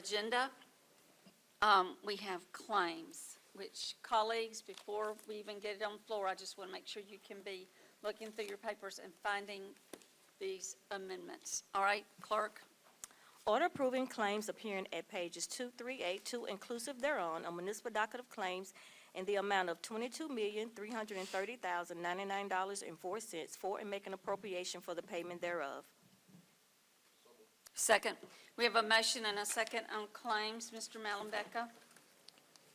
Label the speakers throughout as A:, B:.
A: agenda, um, we have claims, which colleagues, before we even get it on the floor, I just want to make sure you can be looking through your papers and finding these amendments. All right, clerk?
B: Order approving claims appearing at pages 2382 inclusive thereon, a municipal docket of claims in the amount of $22,330,099.04 for and making appropriation for the payment thereof.
A: Second. We have a motion and a second on claims. Mr. Malumbeka?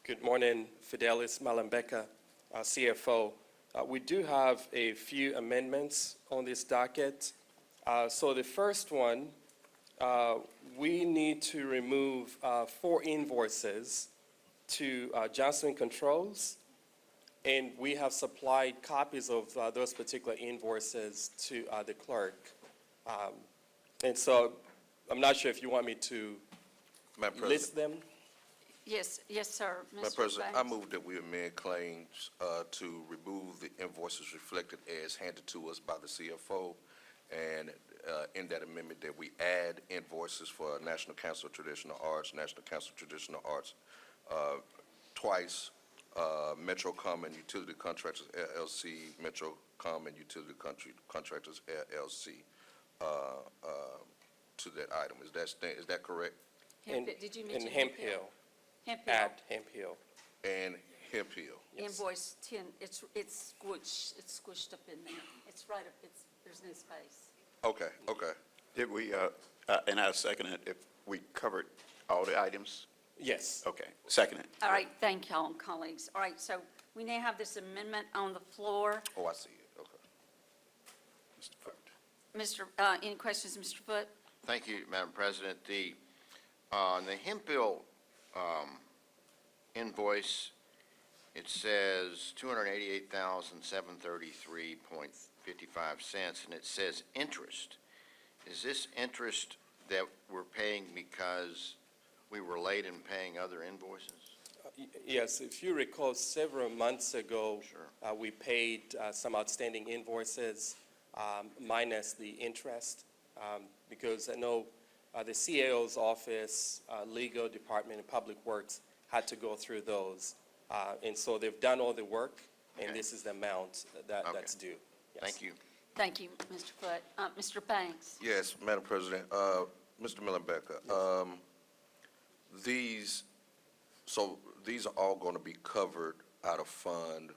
C: Good morning, Fidelis Malembeka, our CFO. Uh, We do have a few amendments on this docket. Uh, So the first one, uh, we need to remove uh, four invoices to uh, Johnson Controls, and we have supplied copies of uh, those particular invoices to uh, the clerk. Um, And so I'm not sure if you want me to
D: Madam
C: list
D: President,
C: them?
A: Yes, yes, sir.
D: Madam
A: Mr.
D: President, I
A: Banks.
D: move that we amend claims uh, to remove the invoices reflected as handed to us by the CFO, and uh, in that amendment, that we add invoices for National Council of Traditional Arts, National Council of Traditional Arts uh, twice, uh, MetroCom and Utility Contractors LLC, MetroCom and Utility Country- Contractors LLC uh, uh, to that item. Is that, sta- is that correct?
A: Hemp-
C: And-
A: Did you
C: And
A: mention?
C: Hemp Hill,
A: Hemp Hill.
C: at Hemp Hill.
D: And Hemp Hill.
C: Yes.
A: Invoice 10, it's, it's squished, it's squished up in there. It's right up, it's, there's no space.
D: Okay, okay.
E: Did we, uh, uh, and I second it, if we covered all the items?
C: Yes.
F: Oh.
E: Okay, second it.
A: All right, thank y'all, colleagues. All right, so we now have this amendment on the floor.
D: Oh, I see it, okay.
A: Mr., uh, any questions, Mr. Foot?
F: Thank you, Madam President. The, uh, the hemp bill, um, invoice, it says two hundred and eighty-eight thousand, seven thirty-three point fifty-five cents, and it says interest. Is this interest that we're paying because we were late in paying other invoices?
C: Y- Yes, if you recall, several months ago,
F: Sure.
C: uh, we paid uh, some outstanding invoices um, minus the interest, um, because I know uh, the CAO's office, uh, legal department, and public works had to go through those. Uh, And so they've done all the work, and
F: Okay.
C: this is the amount that,
F: Okay.
C: that's due. Yes.
F: Thank you.
A: Thank you, Mr. Foot. Uh, Mr. Banks?
D: Yes, Madam President, uh, Mr. Millenbecker, um, these, so these are all going to be covered out of fund,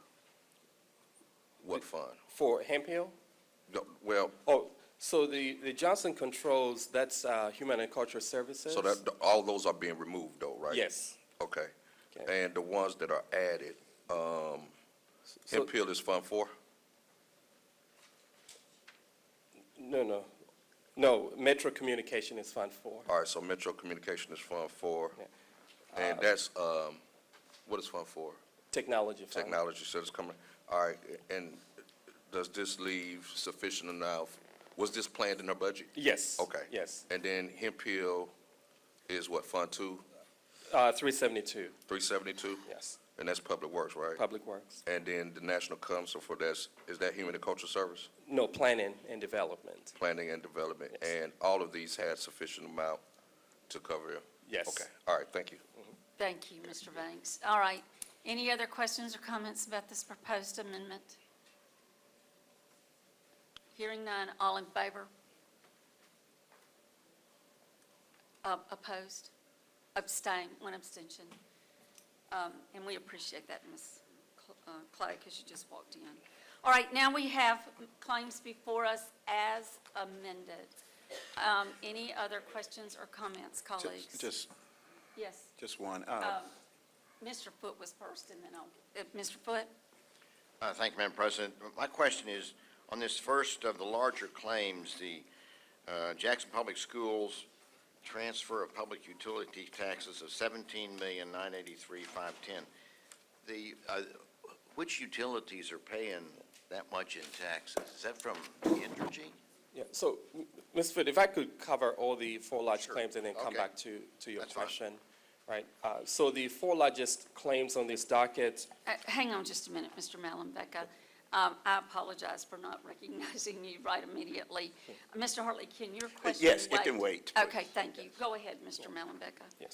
D: what fund?
C: For Hemp Hill?
D: No, Well,
C: Oh, so the, the Johnson Controls, that's uh, Human and Cultural Services?
D: so that, all those are being removed though, right?
C: Yes.
D: Okay.
C: Okay.
D: And the ones that are added, um,
C: So-
D: Hemp Hill is Fund Four?
C: No, no. No, Metro Communication is Fund Four.
D: All right, so Metro Communication is Fund Four.
C: Yeah. Uh,
D: And that's, um, what is Fund Four?
C: Technology Fund.
D: Technology, so it's coming, all right, and does this leave sufficient enough? Was this planned in our budget?
C: Yes.
D: Okay.
C: Yes.
D: And then Hemp Hill is what, Fund Two,
C: Uh, three seventy-two,
D: three seventy-two?
C: yes.
D: And that's Public Works, right?
C: Public Works.
D: And then the National Council for that's, is that Human and Cultural Service?
C: No, Planning and Development,
D: Planning and Development?
C: Yes.
D: And all of these had sufficient amount to cover it?
C: yes.
D: Okay, all right, thank you.
A: Thank you, Mr. Banks. All right, any other questions or comments about this proposed amendment? Hearing none, all in favor? Uh, Opposed? Abstain, one abstention. Um, And we appreciate that, Ms. Cl- uh, Clay, because you just walked in. All right, now we have claims before us as amended. Um, Any other questions or comments,
E: Just-
A: colleagues?
E: Just,
A: Yes.
E: just one. Uh,
A: Um, Mr. Foot was first, and then I'll, uh, Mr. Foot?
F: Uh, Thank you, Madam President. My question is, on this first of the larger claims, the uh, Jackson Public Schools transfer of public utility taxes of $17,983,510. The, uh, which utilities are paying that much in taxes? Is that from Entergy?
C: Yeah, so, m- Ms. Foote, if I could cover all the four large
F: Sure.
C: claims and then come
F: Okay.
C: back to, to your
F: That's fine.
C: question. Right, uh, so the four largest claims on this docket
A: Uh, Hang on just a minute, Mr. Malumbeka. Um, I apologize for not recognizing you right immediately. Mr. Hartley, can your question wait?
E: Uh, Yes, it can wait,
A: Okay, thank you. Go ahead, Mr. Malumbeka.